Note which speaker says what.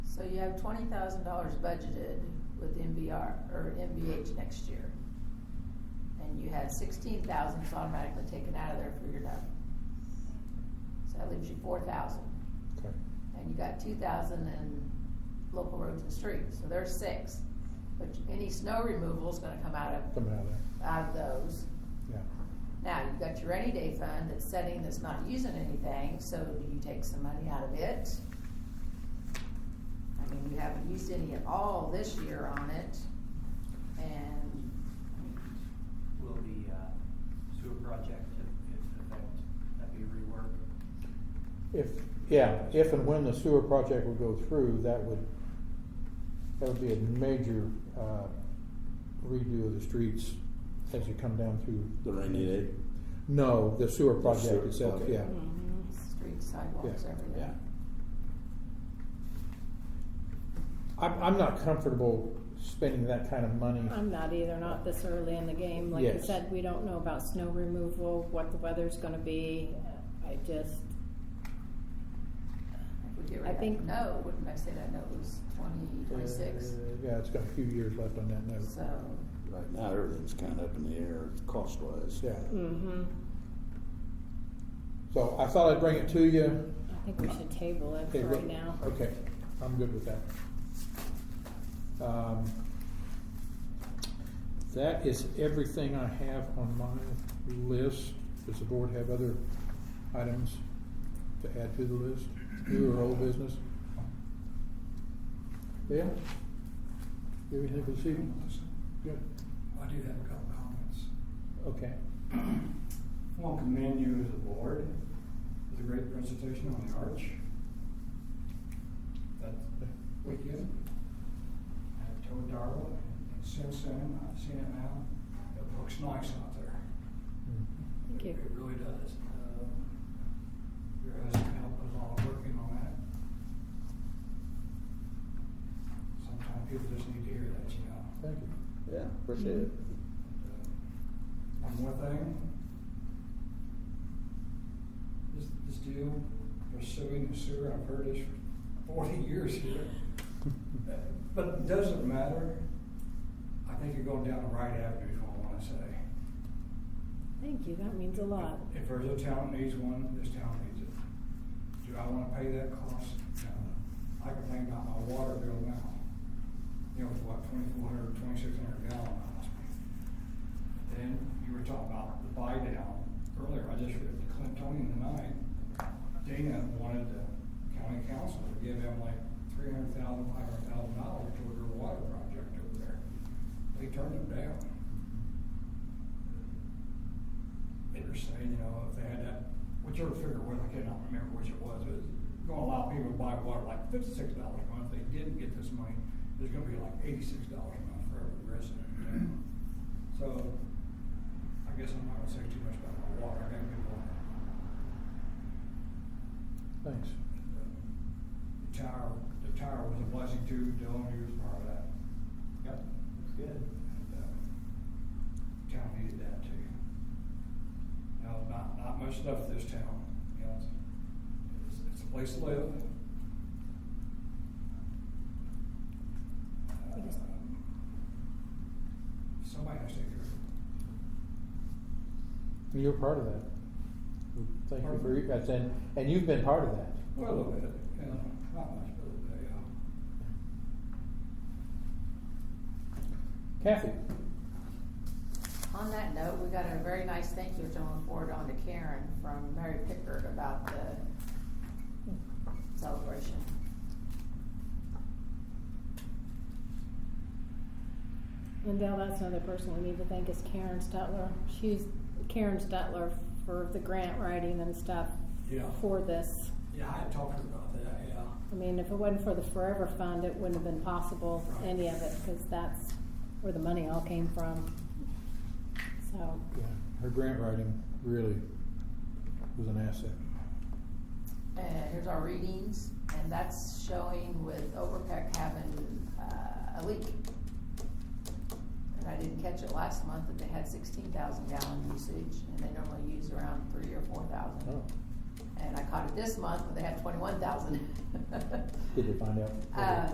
Speaker 1: have twenty thousand dollars budgeted with MBR, or MBH next year. And you had sixteen thousand is automatically taken out of there for your dump. So that leaves you four thousand,
Speaker 2: Okay.
Speaker 1: and you got two thousand in local roads and streets, so there's six. But any snow removal is gonna come out of,
Speaker 2: Come out of there,
Speaker 1: out of those.
Speaker 2: yeah.
Speaker 1: Now, you've got your rainy day fund that's setting that's not using anything, so do you take some money out of it? I mean, you haven't used any at all this year on it, and,
Speaker 3: Will the uh, sewer project, if if affect, that be reworked?
Speaker 2: If, yeah, if and when the sewer project would go through, that would, that would be a major, uh, redo of the streets as you come down through.
Speaker 4: The rainy day?
Speaker 2: No, the sewer
Speaker 4: The
Speaker 2: project
Speaker 4: sewer,
Speaker 2: itself,
Speaker 4: okay.
Speaker 2: yeah.
Speaker 1: streets, sidewalks,
Speaker 2: Yeah,
Speaker 1: everything.
Speaker 4: Yeah.
Speaker 2: I'm, I'm not comfortable spending that kind of money.
Speaker 5: I'm not either, not this early in the game. Like I
Speaker 2: Yes.
Speaker 5: said, we don't know about snow removal, what the weather's gonna be. I just,
Speaker 1: If we get
Speaker 5: I
Speaker 1: rid of
Speaker 5: think-
Speaker 1: that note, wouldn't I say that note was twenty, twenty-six?
Speaker 2: Uh, Yeah, it's got a few years left on that note.
Speaker 1: So,
Speaker 4: Right now, everything's kind of up in the air cost wise.
Speaker 2: Yeah,
Speaker 5: mm-hmm.
Speaker 2: so I thought I'd bring it to you.
Speaker 5: I think we should table it
Speaker 2: Okay,
Speaker 5: for
Speaker 2: good.
Speaker 5: right now.
Speaker 2: Okay, I'm good with that. Um, That is everything I have on my list. Does the board have other items to add to the list? New or old business? Yeah? Do you have anything this evening? Good,
Speaker 6: I do have a couple comments.
Speaker 2: okay.
Speaker 6: I want to commend you as a board for the great presentation on the arch. That weekend, I told Darla, and since then, I've seen it now, it looks nice out there.
Speaker 5: Thank you.
Speaker 6: It really does. Uh, Your husband helped us all working on that. Sometimes people just need to hear that, you know.
Speaker 2: Thank you.
Speaker 4: Yeah, appreciate it.
Speaker 6: One more thing. This, this deal, pursuing the sewer, I've heard this for forty years here. But it doesn't matter. I think you're going down the right avenue, is what I wanna say.
Speaker 5: Thank you, that means a lot.
Speaker 6: If there's a town that needs one, this town needs it. Do I wanna pay that cost? No. I can think about my water bill now. You know, it's what, twenty-four hundred, twenty-six hundred gallon miles. Then you were talking about the buy down earlier. I just read the Clintonian tonight. Dana wanted the county council to give him like three hundred thousand, five hundred thousand dollars toward her water project over there. They turned him down they were saying, you know, if they had that, whichever figure it was, I cannot remember which it was, it was gonna allow people to buy water like fifty-six dollars a month, if they didn't get this money, there's gonna be like eighty-six dollars a month for every resident. in town. So, I guess I'm not gonna say too much about my water, I gotta uh, move on.
Speaker 2: Thanks.
Speaker 6: The tower, the tower was a blessing too, Dylan, he was part of that. Yep.
Speaker 3: That's good.
Speaker 6: And, uh, Town needed that too. Now, not, not much stuff this town, you know, it's, it's a place to live.
Speaker 5: It is.
Speaker 6: Um, Somebody has to take care of it.
Speaker 2: You're part of that. Thank you for, that's, and, and you've been part of that.
Speaker 6: Well, a little bit, you know, not much, but uh, a little bit, yeah.
Speaker 2: Kathy?
Speaker 1: on that note, we got a very nice thank you, which I'm gonna forward on to Karen from Mary Pickard about the celebration.
Speaker 5: And Dale, that's another person we need to thank is Karen Stutler. She's Karen Stutler for the grant writing and stuff
Speaker 6: Yeah.
Speaker 5: for this.
Speaker 6: Yeah, I had talked to her about that, yeah.
Speaker 5: I mean, if it wasn't for the Forever Fund, it wouldn't have been possible, any of it, because that's where the money all came from. So,
Speaker 2: Yeah, her grant writing really was an asset.
Speaker 1: And here's our readings, and that's showing with Overpeck having, uh, a leak. And I didn't catch it last month, that they had sixteen thousand gallon usage, and they normally use around three or four
Speaker 2: Oh,
Speaker 1: thousand. And I caught it this month, but they had twenty-one thousand.
Speaker 2: did they find out?
Speaker 1: Uh,